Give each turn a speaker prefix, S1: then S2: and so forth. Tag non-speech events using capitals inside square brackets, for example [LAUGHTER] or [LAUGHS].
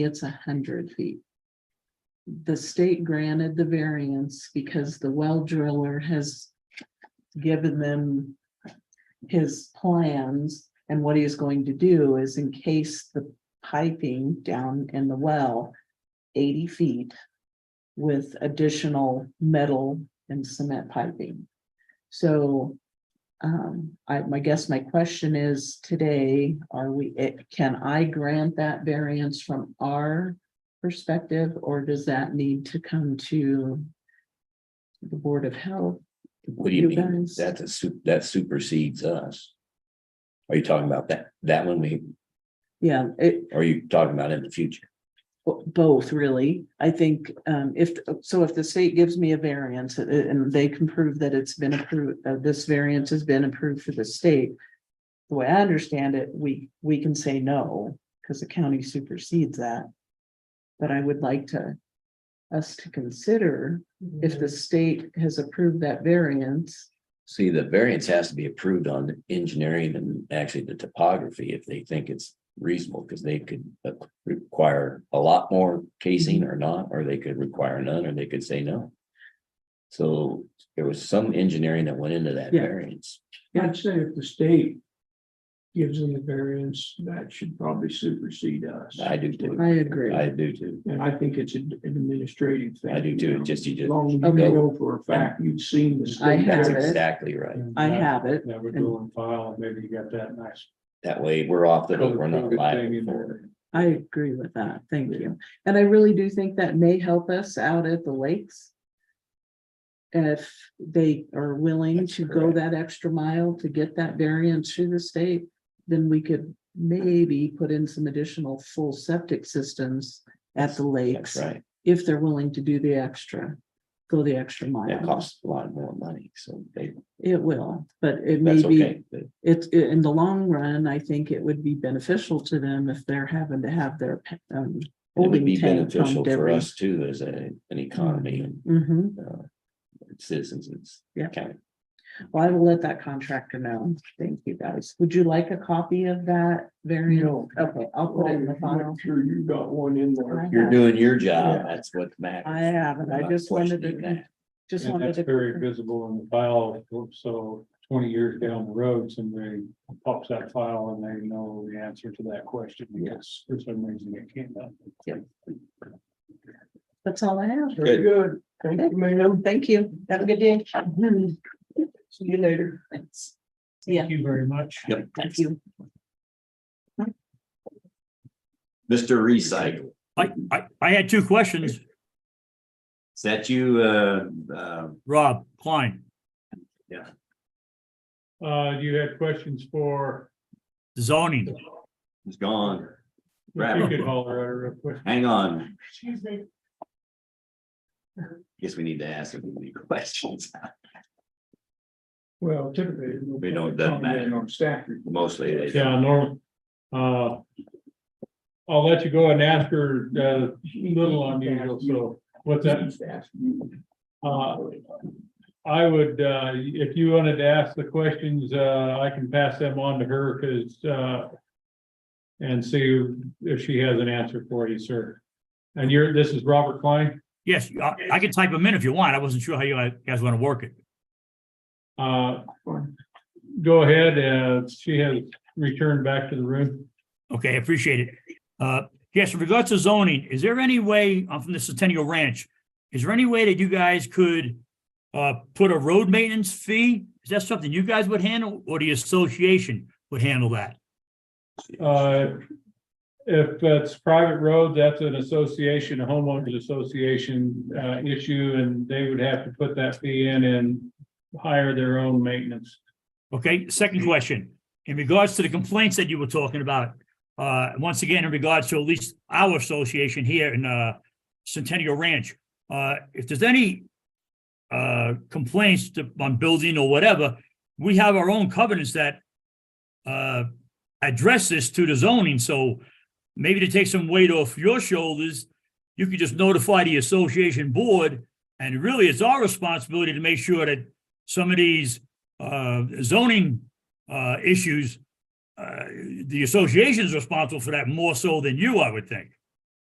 S1: it's a hundred feet. The state granted the variance because the well driller has given them his plans and what he is going to do is encase the piping down in the well eighty feet with additional metal and cement piping. So um, I, my guess, my question is today, are we, it- can I grant that variance from our perspective, or does that need to come to the Board of Health?
S2: What do you mean?
S1: guys?
S2: That's a su- that supersedes us. Are you talking about that, that one we,
S1: Yeah, it,
S2: or are you talking about in the future?
S1: Bo- Both, really. I think um if, so if the state gives me a variance uh, and they can prove that it's been approved, uh, this variance has been approved for the state. The way I understand it, we, we can say no, because the county supersedes that. But I would like to, us to consider if the state has approved that variance.
S2: See, the variance has to be approved on engineering and actually the topography if they think it's reasonable, because they could uh, require a lot more casing or not, or they could require none, or they could say no. So there was some engineering that went into that
S1: Yeah.
S2: variance.
S3: I'd say if the state gives them the variance, that should probably supersede us.
S2: I do too,
S1: I agree.
S2: I do too.
S3: And I think it's an administrative thing.
S2: I do too, just you
S3: As
S2: just,
S3: long as you
S1: Okay.
S3: know for a fact, you've seen the. state
S1: I have
S2: that's
S1: it.
S2: exactly right.
S1: I have it.
S4: That would go on file, maybe you got that nice.
S2: That way we're off the hook, we're not
S4: coded thing
S2: liable
S4: in
S2: for it.
S4: there.
S1: I agree with that. Thank you. And I really do think that may help us out at the lakes. If they are willing
S2: That's
S1: to go
S2: correct.
S1: that extra mile to get that variance through the state, then we could maybe put in some additional full septic systems at the
S2: That's
S1: lakes,
S2: right.
S1: if they're willing to do the extra, go the extra
S2: That
S1: mile.
S2: costs a lot more money, so they,
S1: It will, but it may
S2: that's
S1: be
S2: okay. but
S1: it's i- in the long run, I think it would be beneficial to them if they're having to have their. pe- um,
S2: It would
S1: holding
S2: be
S1: tank
S2: beneficial
S1: pumped
S2: for
S1: every-
S2: us too, as a, an economy and
S1: Mhm.
S2: citizens. it's
S1: Yeah.
S2: county.
S1: well, I will let that contractor know. Thank you guys. Would you like a copy of that variant?
S3: No.
S1: Okay, I'll put it in the file.
S3: Make Sure Oh, you got one in
S1: I
S3: there.
S2: You're
S1: have-
S2: doing your job,
S3: Yeah.
S2: that's what matters.
S1: I haven't. I
S2: Not
S1: just wanted
S2: questioning
S1: to,
S2: that.
S1: just
S4: And
S1: wanted
S4: that's very
S1: to.
S4: visible in the file, so twenty years down the road, somebody pops that file and they know the answer to that question, because for some reason it came up.
S1: That's all I have.
S3: Very good. Thank you, ma'am. Mm-hmm.
S1: Thank you. Have a good day.
S3: See you later.
S1: Thanks. Yeah,
S4: you very much.
S2: Yep.
S1: thank you.
S2: Mr. Recycle,
S5: I, I, I had two questions,
S2: is that you, uh, uh,
S5: Rob Klein,
S4: Uh, you had questions for,
S5: zoning.
S2: is gone?
S4: if you could holler at her real quick.
S2: Hang on. Guess we need to ask them any questions. [LAUGHS]
S3: Well, typically. no
S2: We know it
S4: Oh,
S2: doesn't matter.
S3: comment On staff. report.
S2: Mostly it is.
S4: Yeah, Norm. Uh. I'll let you go and ask her, uh, little unusual, so what's that?
S3: Staff, you-
S4: Uh, I would, uh, if you wanted to ask the questions, uh, I can pass them on to her, cause, uh. And see if she has an answer for you, sir. And you're, this is Robert Klein,
S5: Yes, I, I can type them in if you want. I wasn't sure how you guys want to work it.
S4: uh. Go ahead, uh, she has returned back to the room.
S5: Okay, appreciate it. Uh, yes, with regards to zoning, is there any way, I'm from the Centennial Ranch, is there any way that you guys could uh, put a road maintenance fee? Is that something you guys would handle or the association would handle that?
S4: Uh, If it's private road, that's an association, a homeowners association uh, issue, and they would have to put that fee in and hire their own maintenance.
S5: Okay, second question, in regards to the complaints that you were talking about, uh, once again, in regards to at least our association here in, uh, Centennial Ranch, uh, if there's any uh, complaints to- on building or whatever, we have our own covenants that uh, address this to the zoning, so maybe to take some weight off your shoulders, you could just notify the association board, and really, it's our responsibility to make sure that some of these uh, zoning uh, issues, uh, the association's responsible for that more so than you, I would think.